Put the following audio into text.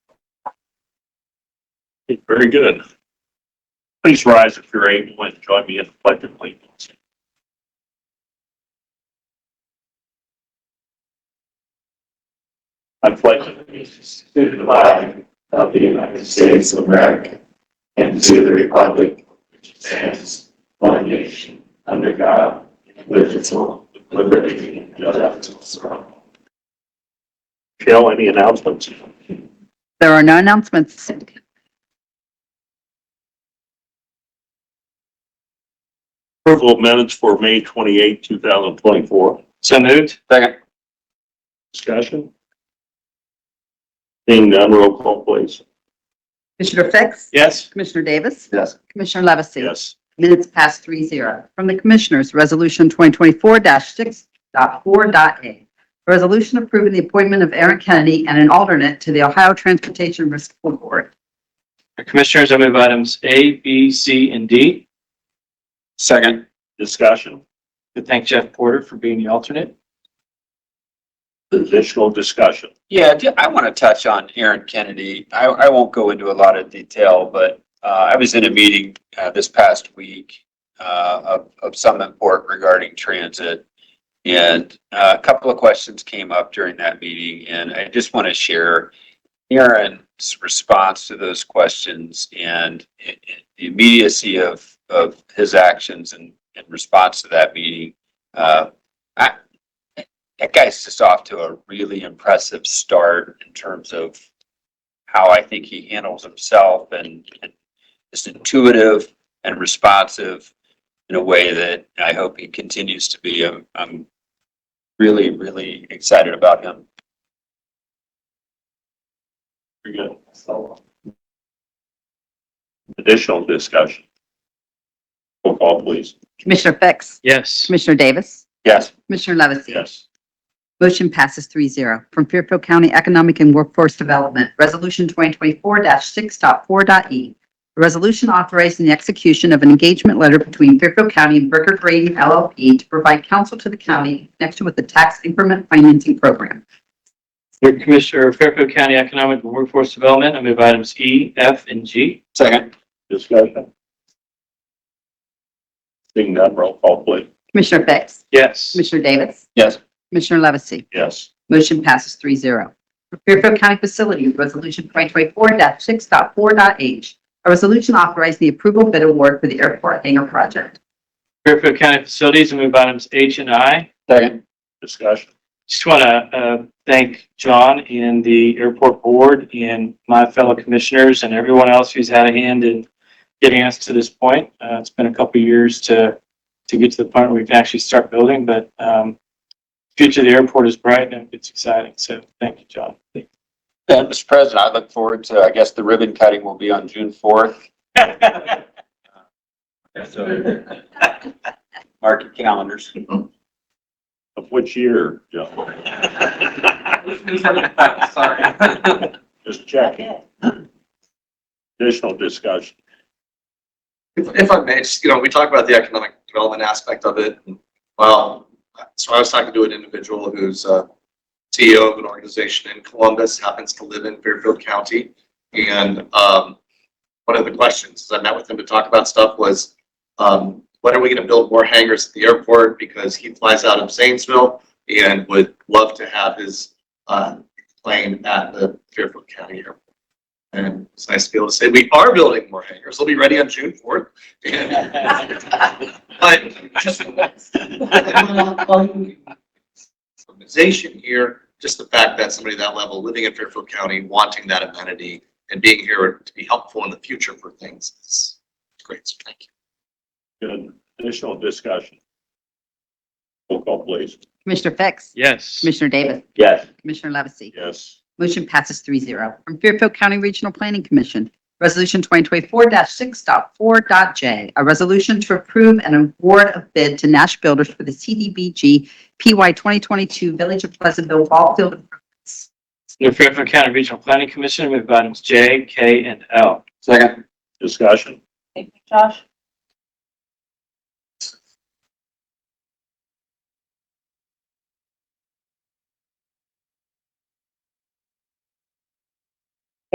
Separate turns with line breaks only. Very good. Please rise if you're able and join me in the pledge of allegiance. I pledge allegiance
to the flag of the United States of America and to the republic which stands one nation under God, indivisible, with liberty and justice for all.
Shall any announcements?
There are no announcements.
Approval of minutes for May 28, 2024.
So moved. Second.
Discussion? Seeing none, roll call please.
Commissioner Fix?
Yes.
Commissioner Davis?
Yes.
Commissioner Levesey?
Yes.
Minutes past three zero. From the Commissioners, Resolution 2024-6.4.a. A resolution approving the appointment of Aaron Kennedy and an alternate to the Ohio Transportation Risk Pool Board.
Commissioners, I move items A, B, C, and D. Second.
Discussion?
To thank Jeff Porter for being the alternate.
Additional discussion?
Yeah, ju- I want to touch on Aaron Kennedy. I, I won't go into a lot of detail, but uh, I was in a meeting uh, this past week uh, of, of some import regarding transit. And uh, a couple of questions came up during that meeting, and I just want to share Aaron's response to those questions and i- i- the immediacy of, of his actions and, in response to that meeting. Uh, that guy's just off to a really impressive start in terms of how I think he handles himself and, and is intuitive and responsive in a way that I hope he continues to be. I'm, I'm really, really excited about him.
Very good. Additional discussion? Roll call please.
Commissioner Fix?
Yes.
Commissioner Davis?
Yes.
Commissioner Levesey?
Yes.
Motion passes three zero. From Fairfield County Economic and Workforce Development, Resolution 2024-6.4.e. E. A resolution authorizing the execution of an engagement letter between Fairfield County and Burger Green LLP to provide counsel to the county in connection with the tax increment financing program.
Commissioner Fairfield County Economic and Workforce Development, I move items E, F, and G.
Second.
Discussion? Seeing none, roll call please.
Commissioner Fix?
Yes.
Commissioner Davis?
Yes.
Commissioner Levesey?
Yes.
Motion passes three zero. Fairfield County Facilities Resolution 2024-6.4.h. A resolution authorizing the approval bid award for the airport hangar project.
Fairfield County Facilities, I move items H and I.
Second.
Discussion?
Just want to uh, thank John and the airport board and my fellow commissioners and everyone else who's had a hand in getting us to this point. Uh, It's been a couple of years to, to get to the point where we can actually start building, but um, future of the airport is bright and it's exciting. So thank you, John.
And Mr. President, I look forward to, I guess the ribbon cutting will be on June 4th. So mark your calendars.
Of which year, Joe?
Sorry.
Just checking. Additional discussion?
If, if I may, just, you know, we talk about the economic development aspect of it. and, Well, so I was talking to an individual who's uh CEO of an organization in Columbus, happens to live in Fairfield County. And, um, one of the questions I met with him to talk about stuff was, um, when are we gonna build more hangars at the airport? Because he flies out of Zanesville and would love to have his, uh, plane at the Fairfield County Airport. And it's nice to be able to say, we are building more hangars. They'll be ready on June fourth. But just organization here, just the fact that somebody that level, living in Fairfield County, wanting that amenity and being here to be helpful in the future for things is great. So thank you.
Good. Additional discussion? Roll call please.
Commissioner Fix?
Yes.
Commissioner Davis?
Yes.
Commissioner Levesey?
Yes.
Motion passes three zero. From Fairfield County Regional Planning Commission, Resolution 2024-6.4.j, a resolution to approve an award of bid to Nash Builders for the CDBG PY 2022 Village of Pleasantville Ball Field Improvements.
New Fairfield County Regional Planning Commission, I move items J, K, and L.
Second.
Discussion?
Thank you, Josh.